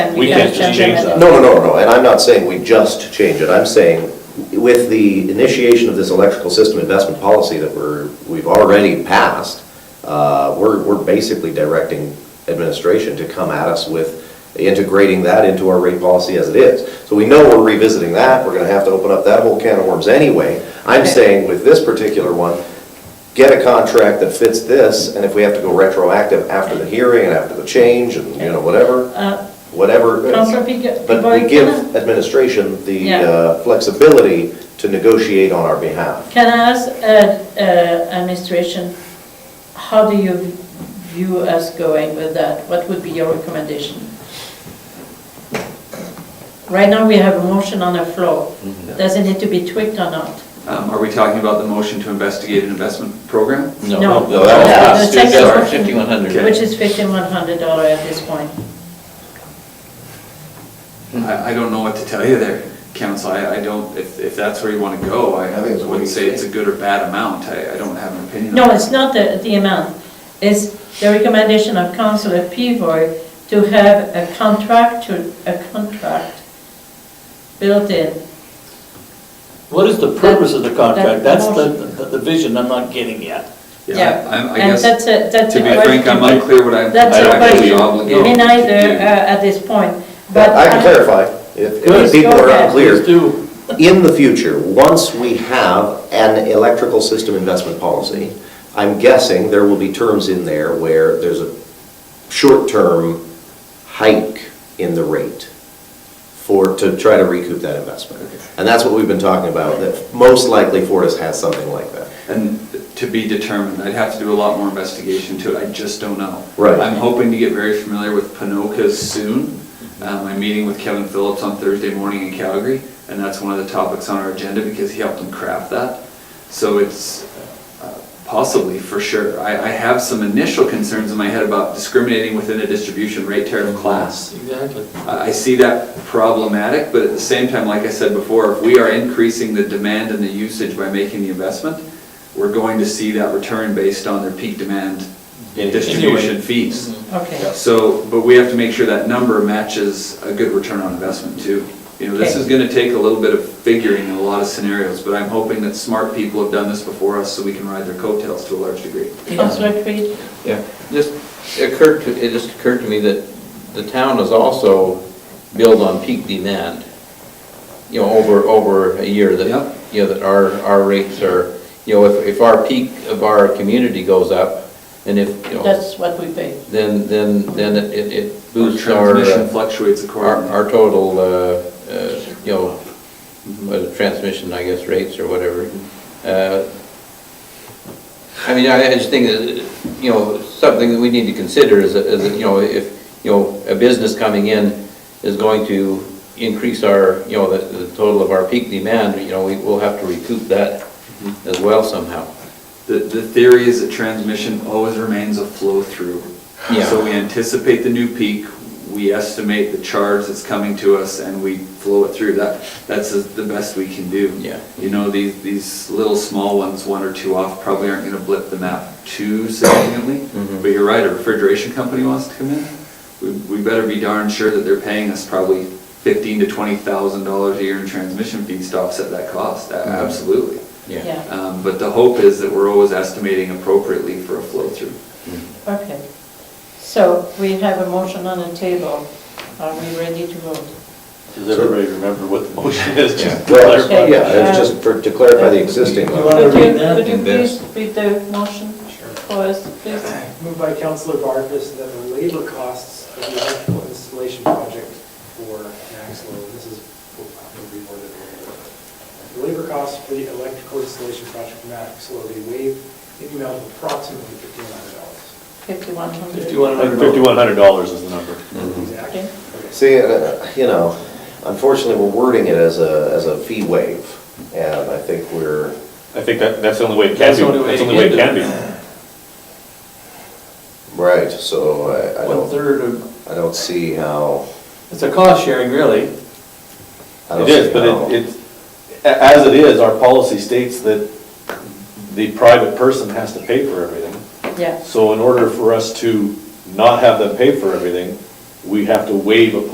And We gotta can't just jump in change and- that. No, no, no, no, and I'm not saying we just change it, I'm saying with the initiation of this electrical system investment policy that we're, we've already passed, uh, we're, we're basically directing administration to come at us with integrating that into our rate policy as it is. So we know we're revisiting that, we're gonna have to open up that whole can of worms anyway. I'm Okay. saying with this particular one, get a contract that fits this, and if we have to go retroactive after the hearing and after the change and, you know, whatever, Uh, whatever. Counselor Pico- But Pivoy, we give can I- administration the Yeah. uh, flexibility to negotiate on our behalf. Can I ask uh, uh, administration, how do you view us going with that? What would be your recommendation? Right now, we have a motion on the floor. Mm-hmm. Does it need to be tweaked or not? Um, Are we talking about the motion to investigate an investment program? No. No, No, that was the second sorry, motion. 5100. Which is $5,100 at this point. I, I don't know what to tell you there, council. I, I don't, if, if that's where you want to go, I I think it's what wouldn't you say say. it's a good or bad amount. I, I don't have an opinion. No, on it. it's not the, the amount. It's the recommendation of Councilor Pivoy to have a contract to, a contract built in. What is the purpose of the That- that contract? That's the, motion. the the vision I'm not getting yet. Yeah, I'm- I And guess, that's a, that's to a be frank, I'm question. unclear what I'm That's a actually question. obligated. Me neither to do. uh, at this point, but. uh, I can I- clarify, if if Good. people are Yes, go unclear. Please do. In the future, once we have an electrical system investment policy, I'm guessing there will be terms in there where there's a short-term hike in the rate for, to try to recoup that investment. And that's what we've been talking about, that most likely Fortis has something like that. And to be determined, I'd have to do a lot more investigation to it, I just don't know. Right. I'm hoping to get very familiar with Pinoca's soon. Um, I'm meeting with Kevin Phillips on Thursday morning in Calgary, and that's one of the topics on our agenda because he helped him craft that. So it's uh, possibly, for sure. I, I have some initial concerns in my head about discriminating within a distribution rate tariff class. Exactly. I I see that problematic, but at the same time, like I said before, if we are increasing the demand and the usage by making the investment, we're going to see that return based on their peak demand distribution fees. Mm-hmm. Okay, So, but we have to make sure that number matches a good return on investment too. You know, this Okay. is gonna take a little bit of figuring in a lot of scenarios, but I'm hoping that smart people have done this before us so we can ride their coattails to a large degree. Councilor Creed, Yeah, just occurred to, it just occurred to me that the town is also billed on peak demand, you know, over, over a year Yep. that, you know, that our, our rates are, you know, if, if our peak of our community goes up, and if, you know, that's what we pay. then, then, then it- it it Our boosts our, Transmission uh, fluctuates our, accordingly. our total, uh, uh, you know, uh, transmission, I guess, rates or whatever. Uh, I mean, I I just think that, you know, something that we need to consider is, that- is that, you know, if, you know, a business coming in is going to increase our, you know, the, the total of our peak demand, you know, we will have to recoup that as well somehow. The, the theory is that transmission always remains a flow-through. Yeah. So we anticipate the new peak, we estimate the charge that's coming to us, and we flow it through. That, that's as- the best we can do. Yeah. You know, these, these little small ones, one or two off, probably aren't gonna blip the map too significantly. Mm-hmm. But you're right, a refrigeration company wants to come in, we, we better be darn sure that they're paying us probably fifteen to twenty thousand dollars a year in transmission fees to offset that cost, A- Mm-hmm. absolutely. Yeah, Um, But the hope is that we're always estimating appropriately for a flow-through. okay. So we have a motion on the table. Are we ready to vote? Does everybody remember what the motion is? Just to Well, clarify. Okay. yeah, it's just for, to clarify the existing You one. wanna Could you, read that? could you in this. please read the motion for us, please? Moved by Councilor Barfus that the labor costs of the electrical installation project for Maxlow, this is, I can reword it a little bit. The labor costs for the electrical installation project for Maxlow, they waive in the amount of approximately fifteen hundred dollars. 5100. Fifty-one Like hundred dollars. $5,100 is the number. Okay. See, uh, you know, unfortunately, we're wording it as a, as a fee waive, and I think we're, I think that, that's the only way it can That's be. the only way That's to the only way it get can be. right, so I, I don't, One-third of, I don't see how. it's a cost sharing, really. I don't It is, see how- but it, it's, a- as it is, our policy states that the private person has to pay for everything. Yeah. So in order for us to not have them pay for everything, we have to waive a